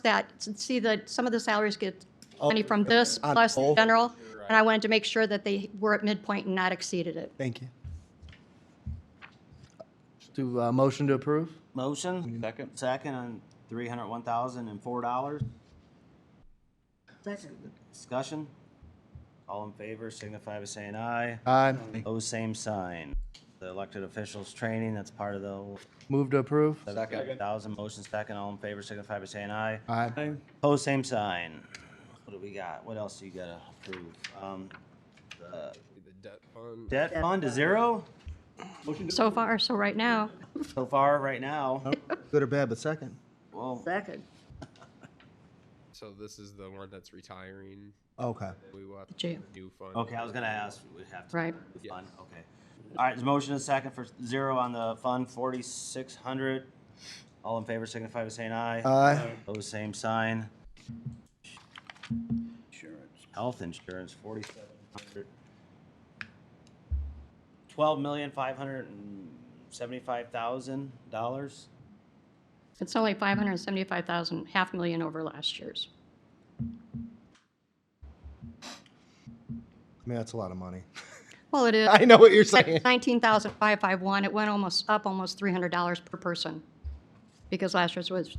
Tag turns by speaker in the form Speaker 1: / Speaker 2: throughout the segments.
Speaker 1: that, see that some of the salaries get money from this
Speaker 2: Oh, on
Speaker 1: plus the
Speaker 2: both?
Speaker 1: general, and I wanted to make sure that they were at midpoint and not exceeded it.
Speaker 2: Thank you.
Speaker 3: Do
Speaker 2: uh,
Speaker 3: a motion to approve?
Speaker 4: Motion,
Speaker 5: Second.
Speaker 4: second on three hundred one thousand and four dollars. Discussion? All in favor signify by saying aye.
Speaker 3: Aye.
Speaker 4: Oh, same sign. The elected officials training, that's part of the
Speaker 3: Move to approve?
Speaker 4: seven thousand motion second. All in favor signify by saying aye.
Speaker 3: Aye.
Speaker 4: Oh, same sign. What do we got? What else you gotta approve? Um, the debt fund to zero
Speaker 1: So far, so right now,
Speaker 4: so far right now.
Speaker 2: Good or bad, but second.
Speaker 4: Well,
Speaker 6: Second.
Speaker 7: So this is the one that's retiring.
Speaker 2: Okay.
Speaker 7: We will have to
Speaker 1: Gee.
Speaker 7: put a new fund.
Speaker 4: okay, I was gonna ask, we have to.
Speaker 1: right?
Speaker 4: The fund, okay. All right, there's a motion and a second for zero on the fund, forty-six hundred. All in favor signify by saying aye.
Speaker 2: Aye.
Speaker 4: Opposed, same sign. Health insurance, forty-seven hundred. Twelve million, five hundred and seventy-five thousand dollars.
Speaker 1: It's only 575,000, half million over last year's.
Speaker 2: I mean, that's a lot of money.
Speaker 1: Well, it is
Speaker 2: I know what you're saying.
Speaker 1: 19,551, it went almost, up almost $300 per person, because last year's was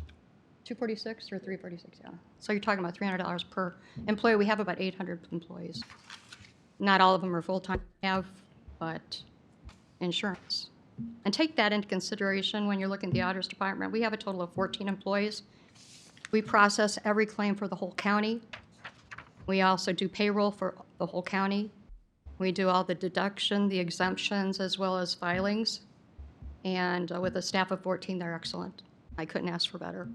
Speaker 1: 246 or 346, yeah. So you're talking about $300 per employee. We have about 800 employees. Not all of them are full-time, have, but insurance. And take that into consideration when you're looking at the auditor's department. We have a total of 14 employees. We process every claim for the whole county. We also do payroll for the whole county. We do all the deduction, the exemptions, as well as filings. And uh, with a staff of 14, they're excellent. I couldn't ask for better.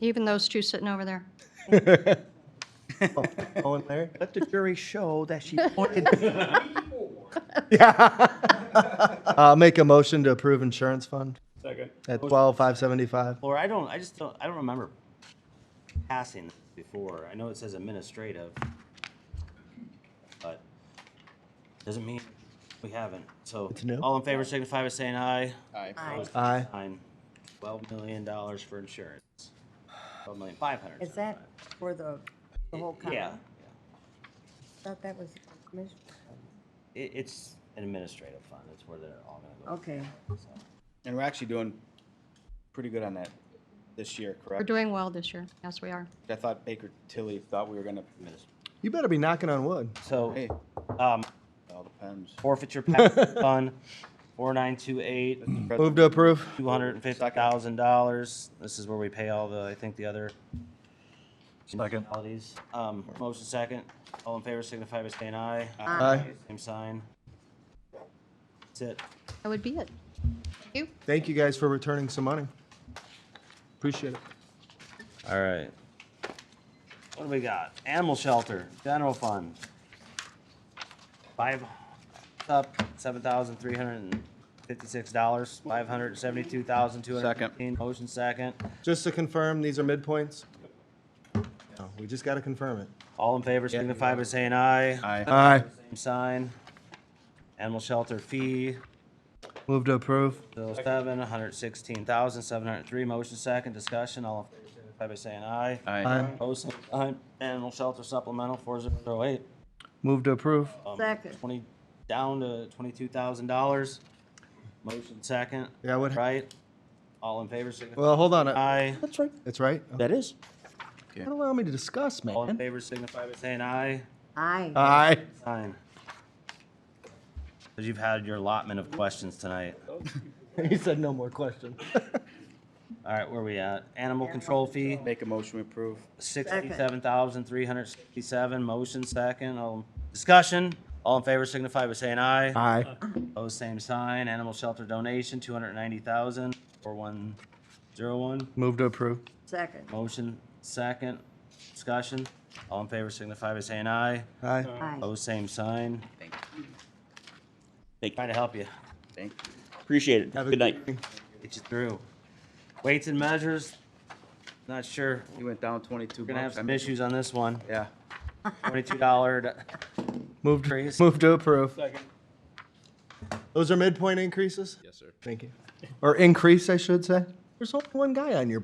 Speaker 1: Even those two sitting over there.
Speaker 2: Owen, Larry?
Speaker 3: Let the jury show that she pointed.
Speaker 2: I'll make a motion to approve insurance fund
Speaker 5: Second.
Speaker 2: at twelve, five seventy-five.
Speaker 4: Laura, I don't, I just don't, I don't remember passing this before. I know it says administrative, but doesn't mean we haven't. So,
Speaker 2: It's new.
Speaker 4: all in favor signify by saying aye.
Speaker 6: Aye.
Speaker 2: Aye.
Speaker 4: Fine. Twelve million dollars for insurance. Twelve million five hundred.
Speaker 6: Is that for the, the whole county?
Speaker 4: Yeah,
Speaker 6: Thought that was, the commission.
Speaker 4: it, it's an administrative fund. It's where they're all gonna
Speaker 6: okay.
Speaker 4: go. So,
Speaker 5: And we're actually doing pretty good on that this year,
Speaker 1: We're
Speaker 5: correct?
Speaker 1: doing well this year. Yes, we are.
Speaker 5: I thought Baker Tilly thought we were gonna miss.
Speaker 2: You better be knocking on wood.
Speaker 4: So,
Speaker 5: Hey,
Speaker 4: um,
Speaker 5: all depends.
Speaker 4: forfeiture penalty fund, four nine two eight.
Speaker 2: Move to approve.
Speaker 4: two hundred and fifty thousand dollars. This is where we pay all the, I think, the other. Municipalities. Um, motion second. All in favor signify by saying aye.
Speaker 2: Aye.
Speaker 4: Same sign. That's it.
Speaker 1: That would be it. Thank you.
Speaker 2: Thank you guys for returning some money. Appreciate it.
Speaker 4: All right. What do we got? Animal shelter, general fund. Five, up, seven thousand three hundred and fifty-six dollars, five hundred and seventy-two thousand two hundred and fifteen. Motion second.
Speaker 2: Just to confirm, these are midpoints? No, We just gotta confirm it.
Speaker 4: All in favor signify by saying aye.
Speaker 5: Aye.
Speaker 2: Aye.
Speaker 4: Same sign. Animal shelter fee,
Speaker 2: Move to approve.
Speaker 4: Bill seven, one hundred sixteen thousand, seven hundred three, motion second, discussion, all in favor, signify by saying aye.
Speaker 5: Aye.
Speaker 4: Opposed, same sign. Animal shelter supplemental, four zero zero eight.
Speaker 2: Move to approve.
Speaker 4: Um,
Speaker 6: Second.
Speaker 4: Twenty, down to twenty-two thousand dollars. Motion second.
Speaker 2: Yeah, I would-
Speaker 4: Right? All in favor, signify
Speaker 2: Well, hold on.
Speaker 4: by
Speaker 2: I-
Speaker 4: aye.
Speaker 2: That's right. That's right?
Speaker 3: That is.
Speaker 2: Don't allow me to discuss,
Speaker 4: All in
Speaker 2: man.
Speaker 4: favor, signify by saying aye.
Speaker 6: Aye.
Speaker 2: Aye.
Speaker 4: Sign. Cause you've had your allotment of questions tonight.
Speaker 2: He said no more questions.
Speaker 4: All right, where we at? Animal control fee.
Speaker 5: Make a motion to approve.
Speaker 4: Sixty-seven thousand, three hundred sixty-seven, motion second, all, discussion, all in favor signify by saying aye.
Speaker 2: Aye.
Speaker 4: Opposed, same sign, animal shelter donation, two hundred ninety thousand, four one zero one,
Speaker 2: Move to approve.
Speaker 6: Second.
Speaker 4: motion second, discussion, all in favor signify by saying aye.
Speaker 2: Aye.
Speaker 6: Aye.
Speaker 4: Opposed, same sign.
Speaker 5: Thank
Speaker 4: Thank. Trying to help you,
Speaker 5: Thank you. Appreciate it.
Speaker 2: Have a
Speaker 5: Good night.
Speaker 2: evening.
Speaker 4: get you through. Weights and measures, not sure,
Speaker 5: You went down twenty-two
Speaker 4: we're gonna have
Speaker 5: bucks. I
Speaker 4: some
Speaker 5: mean,
Speaker 4: issues on this one,
Speaker 5: Yeah.
Speaker 4: twenty-two dollar,
Speaker 2: Move to,
Speaker 4: Trees.
Speaker 2: move to approve. Those are midpoint increases?
Speaker 7: Yes, sir.
Speaker 2: Thank you. Or increase, I should say. There's only one guy on your